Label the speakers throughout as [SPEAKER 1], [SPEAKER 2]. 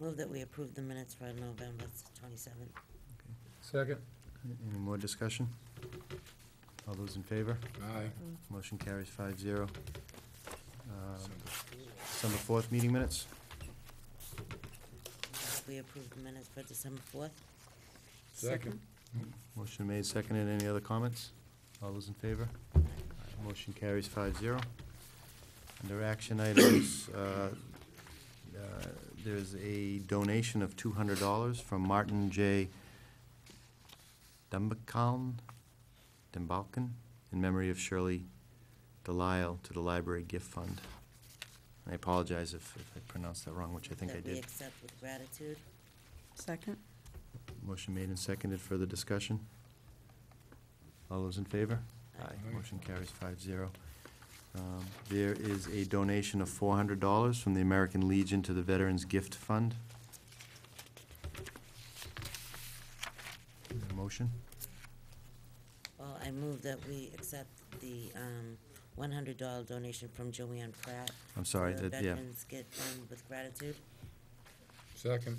[SPEAKER 1] Move that we approve the minutes for November twenty-seventh.
[SPEAKER 2] Second.
[SPEAKER 3] Any more discussion? All those in favor?
[SPEAKER 2] Aye.
[SPEAKER 3] Motion carries five zero. Uh, December fourth, meeting minutes?
[SPEAKER 1] We approve the minutes for December fourth.
[SPEAKER 2] Second.
[SPEAKER 3] Motion made, seconded. Any other comments? All those in favor? Motion carries five zero. Under action items, uh, uh, there's a donation of two hundred dollars from Martin J. Dumbakaln, Dumbalkin, in memory of Shirley Delisle to the Library Gift Fund. I apologize if if I pronounced that wrong, which I think I
[SPEAKER 1] That we
[SPEAKER 3] did.
[SPEAKER 1] accept with gratitude.
[SPEAKER 4] Second?
[SPEAKER 3] Motion made and seconded. Further discussion? All those in favor?
[SPEAKER 1] Aye.
[SPEAKER 2] Aye.
[SPEAKER 3] Motion carries five zero. Um, There is a donation of four hundred dollars from the American Legion to the Veterans Gift Fund. Is there a Motion?
[SPEAKER 1] Well, I move that we accept the, um, one hundred dollar donation from Joanne Pratt.
[SPEAKER 3] I'm sorry,
[SPEAKER 1] for the
[SPEAKER 3] that- yeah.
[SPEAKER 1] Veterans Gift Fund with gratitude.
[SPEAKER 2] Second.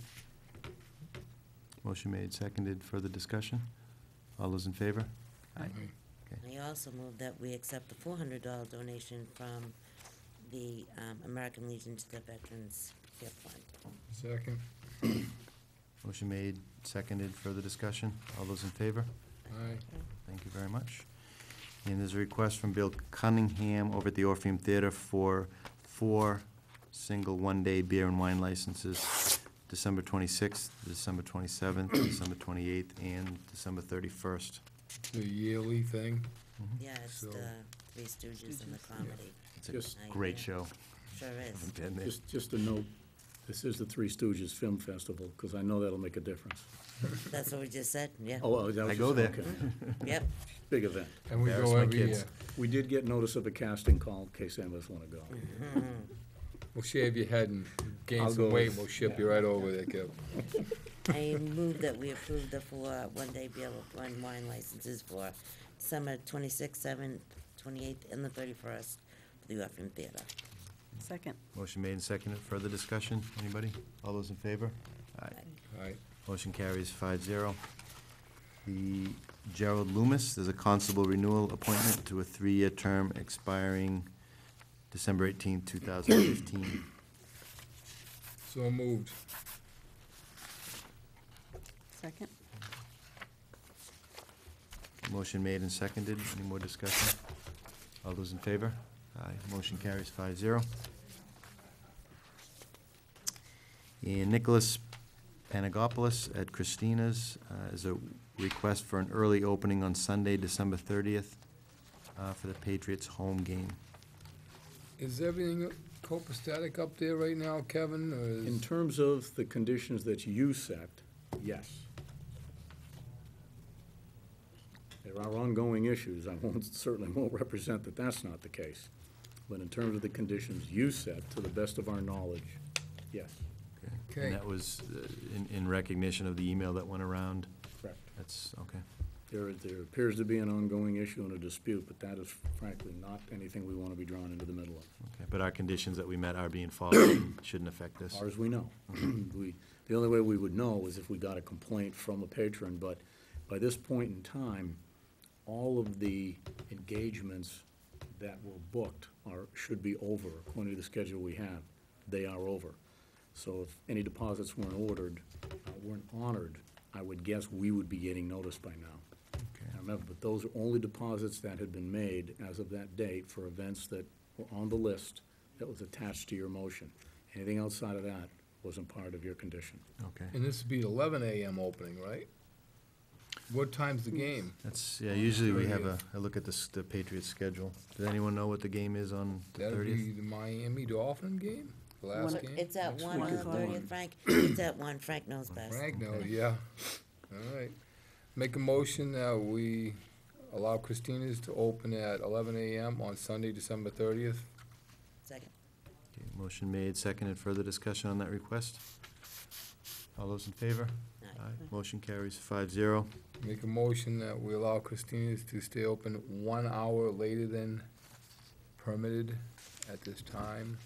[SPEAKER 3] Motion made, seconded. Further discussion? All those in favor?
[SPEAKER 1] I also move that we accept the four hundred dollar donation from the, um, American Legion to the Veterans Gift Fund.
[SPEAKER 2] Second.
[SPEAKER 3] Motion made, seconded. Further discussion? All those in favor?
[SPEAKER 2] Aye.
[SPEAKER 3] Thank you very much. And there's a request from Bill Cunningham over at the Orpheum Theater for four single one-day beer and wine licenses, December 26th, December 27th, December 28th, and December 31st.
[SPEAKER 2] The yearly thing.
[SPEAKER 1] Yeah, it's
[SPEAKER 2] So-
[SPEAKER 1] the Three Stooges and the comedy.
[SPEAKER 3] It's
[SPEAKER 5] Yes.
[SPEAKER 3] a great show.
[SPEAKER 1] Sure is.
[SPEAKER 3] Haven't been there.
[SPEAKER 5] Just, just a note, this is the Three Stooges Film Festival, because I know that'll make a difference.
[SPEAKER 1] That's what we just said, yeah.
[SPEAKER 5] Oh, oh, that
[SPEAKER 3] I
[SPEAKER 5] was
[SPEAKER 3] go there.
[SPEAKER 5] just, okay.
[SPEAKER 1] Yep,
[SPEAKER 5] Big event.
[SPEAKER 2] And we
[SPEAKER 3] Embarrass
[SPEAKER 2] go
[SPEAKER 3] my
[SPEAKER 2] every
[SPEAKER 3] kids.
[SPEAKER 2] year.
[SPEAKER 5] We did get notice of a casting call, in case any of us want to go.
[SPEAKER 1] Mm-hmm.
[SPEAKER 2] We'll shave your head and gain
[SPEAKER 5] I'll
[SPEAKER 2] some
[SPEAKER 5] go
[SPEAKER 2] weight,
[SPEAKER 5] with-
[SPEAKER 2] we'll ship you right over there, Kev.
[SPEAKER 1] I move that we approve the four one-day beer and wine licenses for December twenty-sixth, seventh, twenty-eighth, and the thirty-first for the Orpheum Theater.
[SPEAKER 4] Second.
[SPEAKER 3] Motion made and seconded. Further discussion? Anybody? All those in favor? Aye.
[SPEAKER 2] Aye.
[SPEAKER 3] Motion carries five zero. The Gerald Loomis, there's a constable renewal appointment to a three-year term expiring December eighteenth, two thousand fifteen.
[SPEAKER 2] So moved.
[SPEAKER 4] Second?
[SPEAKER 3] Motion made and seconded. Any more discussion? All those in favor? Aye. Motion carries five zero. And Nicholas Panagopoulos at Christina's uh, is a request for an early opening on Sunday, December thirtieth, uh, for the Patriots home game.
[SPEAKER 2] Is everything copacetic up there right now, Kevin, or
[SPEAKER 5] In
[SPEAKER 2] is?
[SPEAKER 5] terms of the conditions that you set, yes. There are ongoing issues. I won't, certainly won't represent that that's not the case. But in terms of the conditions you set, to the best of our knowledge, yes,
[SPEAKER 2] Okay.
[SPEAKER 3] And that was uh, in, in recognition of the email that went around.
[SPEAKER 5] correct.
[SPEAKER 3] That's, okay.
[SPEAKER 5] There, there appears to be an ongoing issue and a dispute, but that is frankly not anything we want to be drawn into the middle of,
[SPEAKER 3] Okay, but our conditions that we met are being followed and shouldn't affect
[SPEAKER 5] as
[SPEAKER 3] this.
[SPEAKER 5] far as we know. We, the only way we would know is if we got a complaint from a patron, but by this point in time, all of the engagements that were booked are, should be over, according to the schedule we have. They are over. So if any deposits weren't ordered, uh, weren't honored, I would guess we would be getting notice by now.
[SPEAKER 3] Okay.
[SPEAKER 5] Now, remember, but those are only deposits that had been made as of that date for events that were on the list that was attached to your motion. Anything outside of that wasn't part of your condition.
[SPEAKER 3] Okay,
[SPEAKER 2] And this would be eleven AM opening, right? What time's the game?
[SPEAKER 3] that's, yeah, usually we have a, a look at this, the Patriots schedule. Does anyone know what the game is on the
[SPEAKER 2] That'd be
[SPEAKER 3] thirtieth?
[SPEAKER 2] the Miami Dolphin game, the
[SPEAKER 4] One-
[SPEAKER 2] last game?
[SPEAKER 1] It's at
[SPEAKER 2] Next
[SPEAKER 1] one
[SPEAKER 2] week.
[SPEAKER 1] on the
[SPEAKER 4] Next week.
[SPEAKER 1] thirtieth, Frank, it's at one, Frank knows best.
[SPEAKER 2] Frank knows, yeah. All right. Make a motion that we allow Christina's to open at eleven AM on Sunday, December thirtieth.
[SPEAKER 1] Second,
[SPEAKER 3] Motion made, seconded. Further discussion on that request? All those in favor?
[SPEAKER 1] Aye.
[SPEAKER 3] Motion carries five zero.
[SPEAKER 2] Make a motion that we allow Christina's to stay open one hour later than permitted at this time